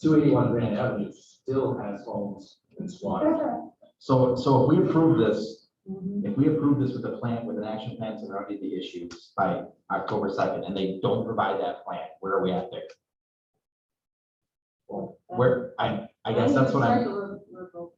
two eighty-one Grand Avenue still has homes in Swan. Mm-hmm. So, so if we approve this, if we approve this with a plan, with an action plan to remedy the issues by October second, and they don't provide that plan, where are we at there? Where, I, I guess that's what I'm, so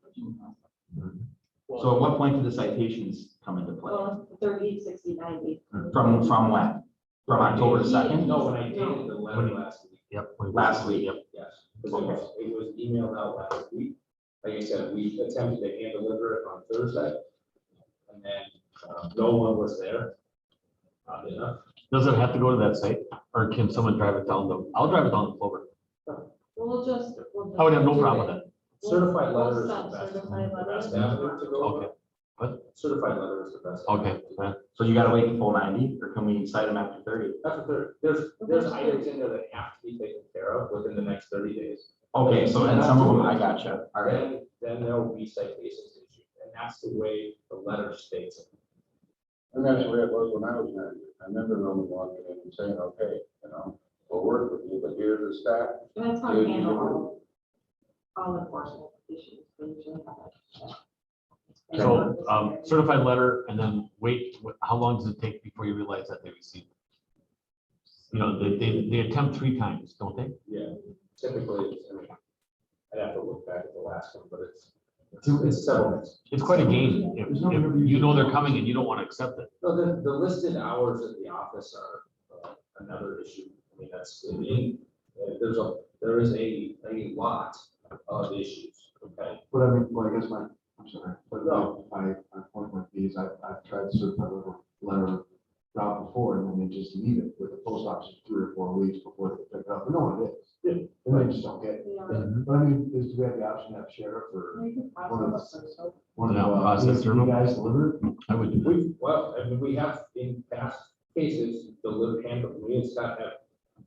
at what point do the citations come into play? Well, thirty, sixty, ninety. Mm-hmm. From, from when? From October second? No, when I dated the letter last week, Yep. we- Last week. Yep. yes, because it was, it was emailed out last week. Like I said, we attempted to hand deliver it on Thursday. And then, um, no one was there. Odd enough. Does it have to go to that site or can someone drive it down the, I'll drive it down the Clover. We'll just. we'll I would have Oh, no just- problem with Certified We'll letter is stop the best. certified The best letter. avenue to it. go. Okay, Certified letter is the best. okay. yeah. So you gotta wait the full ninety, or can we cite them after thirty? That's what there, there's, there's items in there that have to be taken care of within the next thirty days. Okay, so and some of them, I gotcha, all right. Then, then there will be citations issued, and that's the way the letter states it. And that's the way it was when I was manager. I remember Roman walking in and saying, okay, you know, we'll work with you, but here's the staff. That's how we handle all, all enforcement issues. we usually have it. So um, certified letter and then wait, wh- how long does it take before you realize that they received? it? You know, they, they, they attempt three times, don't they? Yeah, typically, it's- I mean, I'd have to look back at the last one, but it's, it's- it's settlements. It's quite a game. If, There's no if review. you know they're coming and you don't want to accept it. No, the, the listed hours at the office are uh, another issue. I mean, that's, I mean, uh, there's a, there is a, a lot of issues, okay? But I mean, well, I guess my, I'm sorry, but No. my, my my point with these, I've, I've tried to certify letter, letter route before, and then they just leave it with the post office for three or four weeks before they pick it up, no one Yeah. did. And they just don't get it, Yeah. Mm-hmm. but I mean, is, do we have the option to have sheriff or We can process it, so one of Yeah, uh, process you server. guys deliver it? I would do that. We've, well, I mean, we have in past cases, delivered, hand, we and Scott have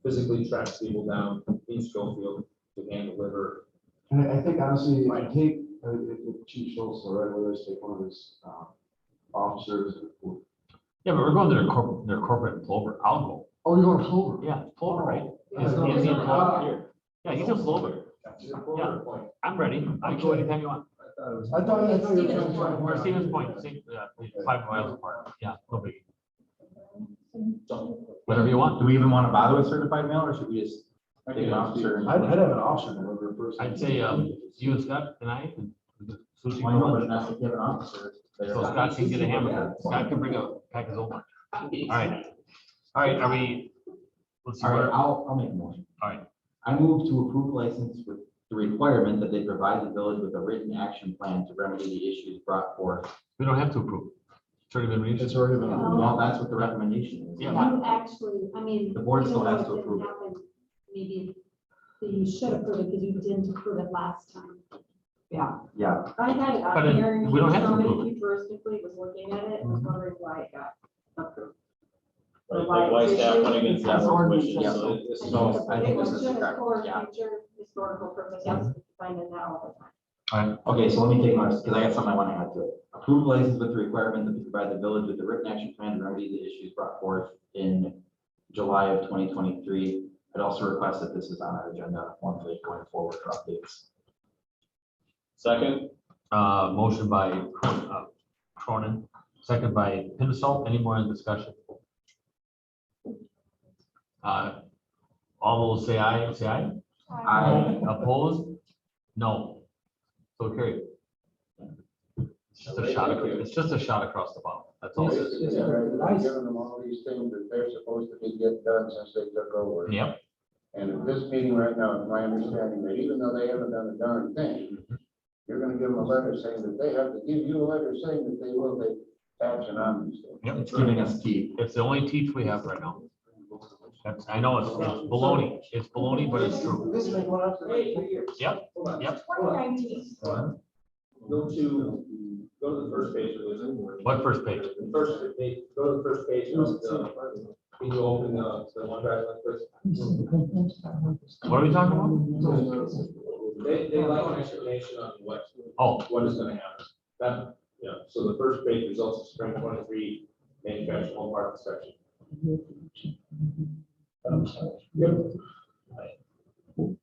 physically tracked people down in Schofield to hand deliver. And I- I think honestly, if I Right. take, uh, if if Chief Schultz or whoever it is, take one of his, um, officers. or- Yeah, but we're going to their corporate, their corporate in Clover. I'll go. Oh, you're going Clover? Yeah, Clover, right? Yeah, Is- so is it's he in not Clover? out here. Yeah, he's in Clover. It's a border point. I'm ready. I can go Okay. anytime you want. I thought, I thought you were. Stevens Point. We're Stevens Point, same, uh, five miles apart. Yeah, no biggie. Whatever you want. Do we even wanna bother with certified mail, or should we just take an officer? and- I'd, I'd have an officer deliver it first. I'd say, um, You and Scott and I. and Susie Why not? But Clover. that's if you have an officer there. So Scott can get a hamburger. Scott can bring a pack of Zoma. All right. All right, are we? Let's see, All right, where- I'll, I'll make a motion. All right. I move to approve license with the requirement that they provide the village with a written action plan to remedy the issues brought forth. we don't have to approve. It's already been reached. It's already been. Oh. Well, that's what the recommendation is. Yeah. That actually, I mean. The board even still though has to didn't approve it. happen, Maybe you should approve it because you didn't approve it last time. Yeah. Yeah, I had it But on it- here. and we don't have to somebody approve Futuristically was looking at it and Mm-hmm. was wondering why it got approved. Right, like why staff went against that That's wishes, yeah. so it- this is I think all it's- I it think this was is just correct, For yeah. Mm-hmm. future historical purposes, finding that all the time. okay, so let me take my, because I got something I want to add to it. Approve license with the requirement that they provide the village with a written action plan to remedy the issues brought forth in July of twenty twenty-three. I'd also request that this is on our agenda monthly going forward for updates. second, Uh, motion by Cron- uh, Cronin, second by Pinnacle. Any more in discussion? Uh, All those say aye, say aye. I, Opposed? No. So carried. It's just a shot, ac- it's just a shot across the bow. That's all. it is. Basically, they're Giving them all these things that they're supposed to be get done since they took over. Yep, And at this meeting right now, it's my understanding that even though they haven't done a darn thing, you're gonna give them a letter saying that they have to give you a letter saying that they will take action on these things. yep. it's giving us key. It's the only teach we have right now. That's, I know it's it's baloney. It's baloney, but it's true. This has been going on for like two years. Yep, Hold on, yep. hold on. days. Hold on. Go to, go to the first page of this. What first page? The first page, go to the first page of the, can you open the, the one drive like first? What are we talking about? They, they like an explanation on what, Oh, what is gonna happen. That, yeah, so the first page results of spring twenty-three manufactured home park inspection. Yep.